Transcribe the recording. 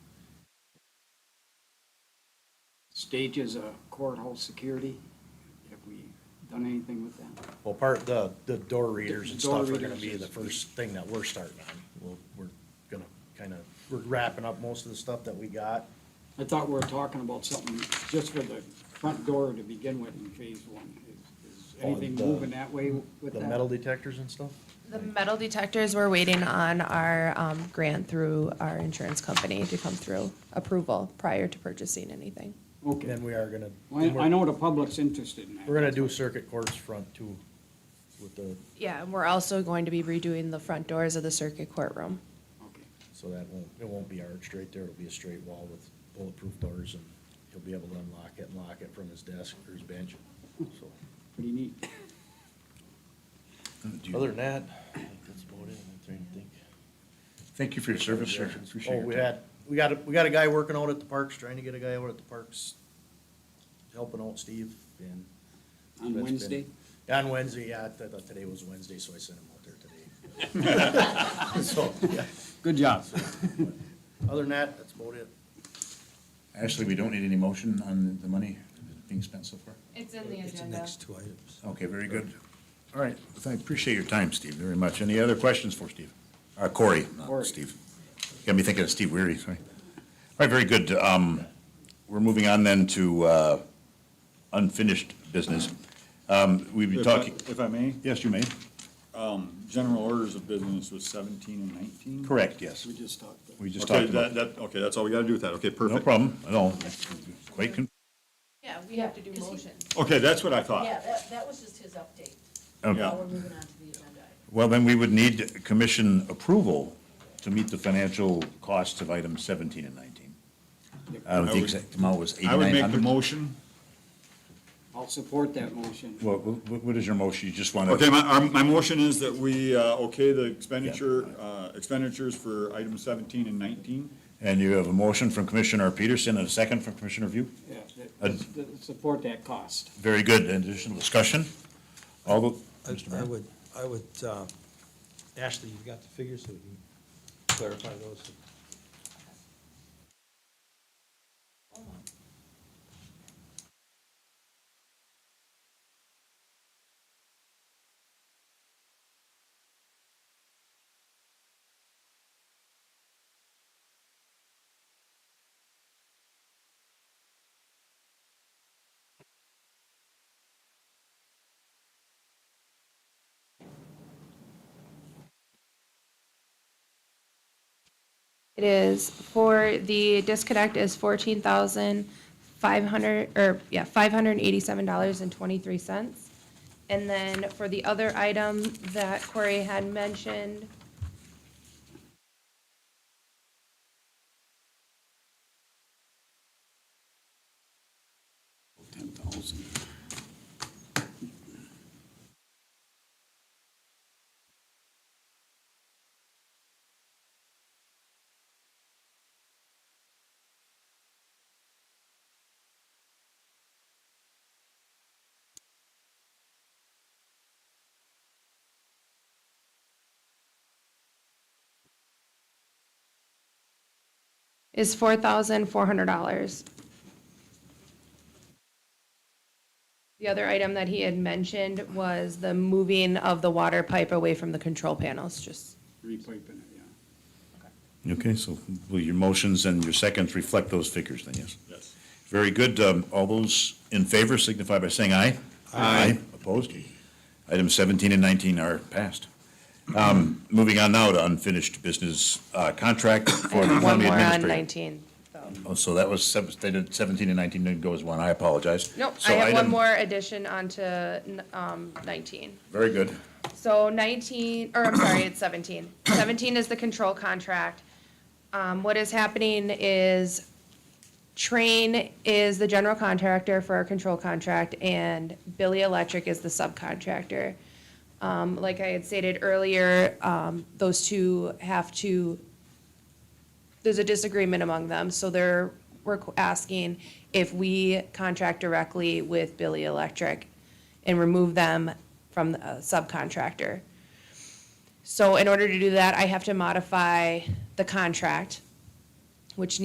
stages of courthouse security? Have we done anything with that? Well, part, the, the door readers and Door stuff are gonna readers be is- the first thing that we're starting on. We'll, we're gonna kinda, we're wrapping up most of the stuff that we got. I thought we were talking about something just for the front door to begin with in phase one. Is- Is On anything the- moving that way with uh, The that? metal detectors and stuff? The metal detectors, we're waiting on our um, grant through our insurance company to come through approval prior to purchasing anything. And Okay. then we are gonna. Well, I I know the public's interested in that. We're gonna do circuit courts front too with the, Yeah, and we're also going to be redoing the front doors of the circuit courtroom. Okay. so that won't, it won't be arched right there. It'll be a straight wall with bulletproof doors and he'll be able to unlock it and lock it from his desk or his bench, so. Pretty neat. Do you- Other than that, I think that's about it. I'm trying to think. Thank you for your service, sir. Oh, Appreciate your we time. had, we got, a we got a guy working out at the parks, trying to get a guy out at the parks, helping out Steve, and. that's On been- Wednesday? On Wednesday, yeah, I thought today was Wednesday, so I sent him out there today. So, yeah, Good job. other than that, that's about it. Ashley, we don't need any motion on the money being spent so far? It's in the It's the next two items. Okay, very good. All right, I appreciate your time, Steve, very much. Any other questions for Steve? Uh, Corey, not Corey. Steve. Got me thinking of Steve Weary, sorry. All right, very good. Um, we're moving on then to, uh, unfinished business. Um, we've been If I- talking, If I may, yes, you may, general orders of business was seventeen and nineteen? correct, yes. We just talked. about- We just Okay, talked about, that, that, okay, that's all we gotta do with that, okay, perfect. no problem, at all. Quite con- Yeah, we have to do motions. Okay, that's what I thought. Yeah, that, that was just his update. Okay. Now we're moving on to the agenda. item. Well, then we would need commission approval to meet the financial costs of items 17 and 19. Uh, I The would- exact amount was I would make the 8,900. motion. I'll support that motion. What- What what is your motion? You just want to? Okay, my, our- my motion is that we, uh, okay the expenditure, uh, expenditures for item seventeen and nineteen. And you have a motion from Commissioner Peterson and a second from Commissioner View? Yeah, that- Uh, that- support that cost. Very good. Additional discussion? All the, I- Mr. I Mayor? would, I would, uh, Ashley, you've got the figures, so we can clarify those. It is for, the disconnect is fourteen thousand five hundred, or, yeah, five hundred and eighty-seven dollars and twenty-three cents. And then for the other item that Corey had mentioned. Ten thousand. is four thousand four hundred dollars. The other item that he had mentioned was the moving of the water pipe away from the control panels, just Repiping it, yeah. Okay, so will your motions and your seconds reflect those figures then, yes? Yes. Very good. Um, All those in favor signify by saying aye. Aye. Opposed? Items 17 and 19 are passed. Um, Moving on now to unfinished business uh, contract for the one county more on administrator. nineteen. so. Oh, So that was, sep- they did 17 and 19 didn't go as one. I apologize. Nope, I So have one item- more addition onto, um, nineteen. Very good. So 19, or I'm sorry, it's 17. 17 is the control contract. Um, What is happening is Train is the general contractor for our control contract, and Billy Electric is the subcontractor. Um, Like I had stated earlier, um, those two have to, there's a disagreement among them, so they're, we're asking if we contract directly with Billy Electric and remove them from the uh, subcontractor. So in order to do that, I have to modify the contract, which